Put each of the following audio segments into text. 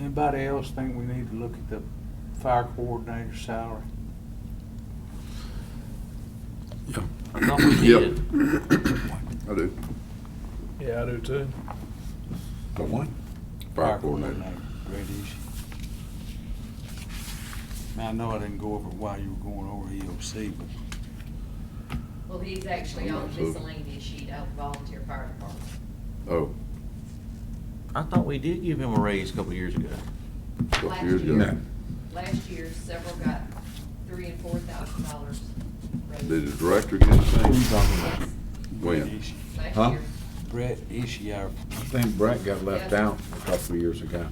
Anybody else think we need to look at the fire coordinator salary? I thought we Yep. did. I do. Yeah, I do too. The what? Fire coordinator. Great issue. Now, I know I didn't go over it while you were going over EOC, but Well, he's actually I'm on not sure. miscellaneous sheet of volunteer fire department. Oh, I thought we did give him a raise a couple years ago. a couple Last years year. ago. Last year, several got three and four thousand dollars Did raise. the director get anything? Yes, Brett When? Ishi, Last Huh? year, Brett Ishi, our I think Brett got left Yeah. out a couple of years ago.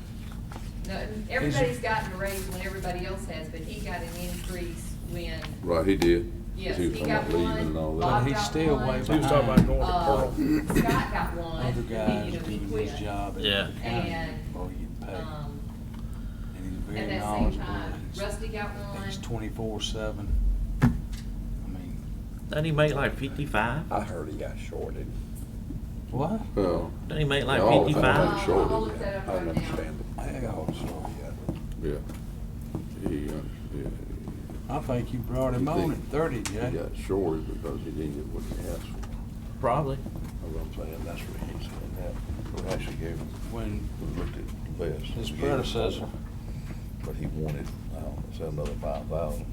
no, everybody's gotten a raise when everybody else has, but he got an increase when, Right, he did. 'cause yes, was he talking got about leaving and all one, that. Bob But he's got still way one. He was talking about going Uh, to Scott got one, other and then, guys you know, he doing his quit. job at Yeah. the county And, before you get paid. Um, And he's at very that same knowledgeable. time, He's- Rusty got one. He's twenty-four seven. I mean, Doesn't he make like fifty-five? I heard he got shorted. what? Well, Doesn't he make like Yeah, all the time. fifty-five? Uh, shoulders. I'll look that up I right don't now. understand it. Hey, oh, sorry. yeah. He, uh, yeah, I think you brought him You on think- at thirty, he Jay. got shorted because he didn't get what he asked for. Probably. That's what I'm saying, that's what he said, that, we actually gave him, When we looked at the list. his We gave him predecessor, But he wanted, I don't know, say another five thousand.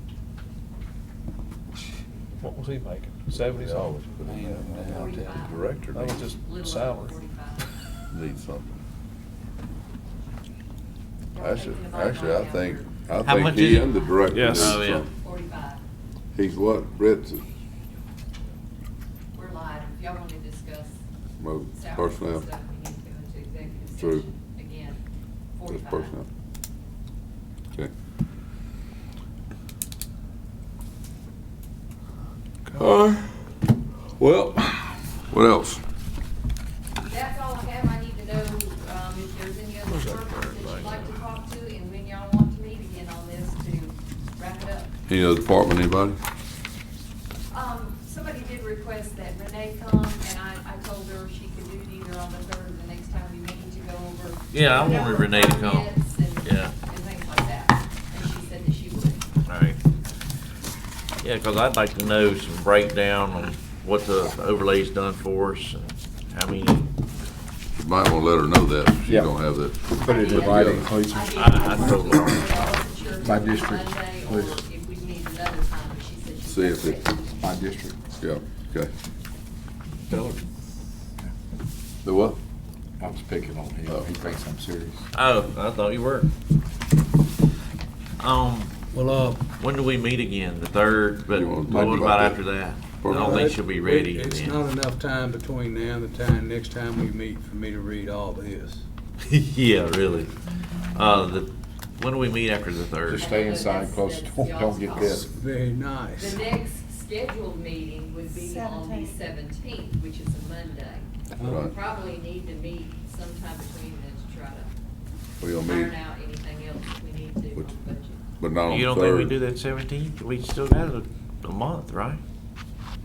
What was he making? Seventy They always something? put him down. Man, I'll tell you. Director That was needs, just Little over salary. forty-five. needs something. Y'all Actually, thinking about actually, I going think, down I How think much he is it? and the director need Yes. Oh, yeah. something. here? Forty-five, He's what, Brett's, we're live, if y'all wanna discuss well, salary and personnel, stuff, we need to go into executive True. session again, it's forty-five. personnel. Okay. Uh, well, what else? That's all I have, I need to know, um, if there's any other Where's that departments bird that you'd like like to that? talk to, and when y'all want to meet again on this to wrap it up. Any other department, anybody? Um, somebody did request that Renee come, and I, I told her she could do it either on the third or the next time we meet to go over. Yeah, I wanted number of Renee to come. permits and- Yeah. And things like that, and she said that she would. All right. Yeah, because I'd like to know some breakdown on what the overlay's done for us and how many. You might wanna let her know that, she Yeah. don't have that. Put it in writing, please. I did. I- I told her. wasn't sure if it My was district, Monday or please. If we need another time, but she said she. See if it- My district. Yeah, okay. Tell her. The what? I was picking on him. He thinks I'm serious. Oh, I thought you were. Um, Well, uh, when do we meet again? The third, but You wanna what talk about about that? after that? I don't think she'll be ready It- It's then. not enough time between now and the time, next time we meet, for me to read all this. Yeah, really. Uh, the, when do we meet after the third? Just stay inside, close the door, don't get bit. Very nice. The next scheduled meeting would be on the seventeenth, which is a Monday. We Right. probably need to meet sometime between then to try to We gonna meet, iron out anything else we need to Which- on budget. but not on third. You don't think we do that seventeenth? We still got a, a month, right?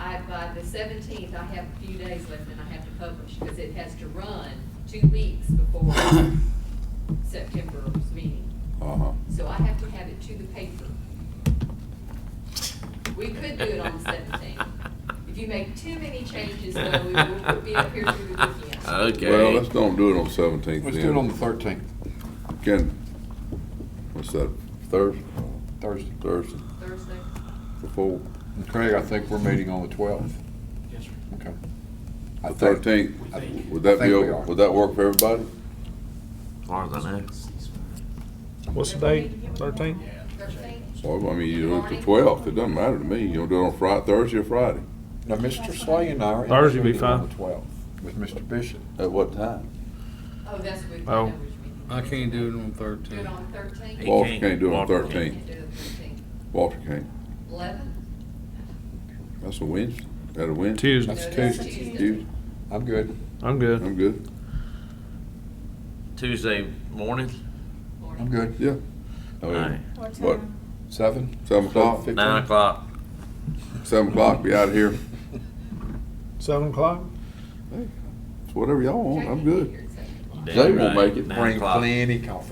I, by the seventeenth, I have a few days left and I have to publish, because it has to run two weeks before September's meeting. Uh-huh. So I have to have it to the paper. We could do it on the seventeenth. If you make too many changes, though, we will be up here through the weekend. Uh, Well, Okay. let's don't do it on seventeenth Let's do it on the then. thirteenth, Can, what's that, Thursday, Thursday. Thursday, Thursday, before, And Craig, I think we're meeting on the twelfth. Yes, sir. Okay. I the think- thirteenth? I think- Would I that be, think we o- are. would that work for everybody? Farther than that. What's the date? Thirteenth? thirteenth, Well, I mean, you do it the Morning. twelfth, it doesn't matter to me, you gonna do it on Fri- Thursday or Friday? Now, Mr. Slay and I are. in Thursday be Sweden on fine. the 12th With Mr. Bishop. At what time? oh, that's with the Oh. numbers meeting. I can't do it on Do it thirteen. on thirteenth? Well, Walter can't do it on Walter can't. thirteenth, Walter can't, Eleven? that's a Wednesday, Is that a Wednesday? Tuesday. That's Tuesday. You, I'm good. I'm good. I'm good, Tuesday morning? morning. I'm good. yeah. I mean, Alright. What What, time? Seven? seven o'clock, Fifteen? Nine o'clock. seven o'clock, be out of here, Seven o'clock? it's whatever y'all want, Jackie, I'm you're good. here at seven o'clock. Damn They won't right, make it. nine Bring o'clock. plenty coffee.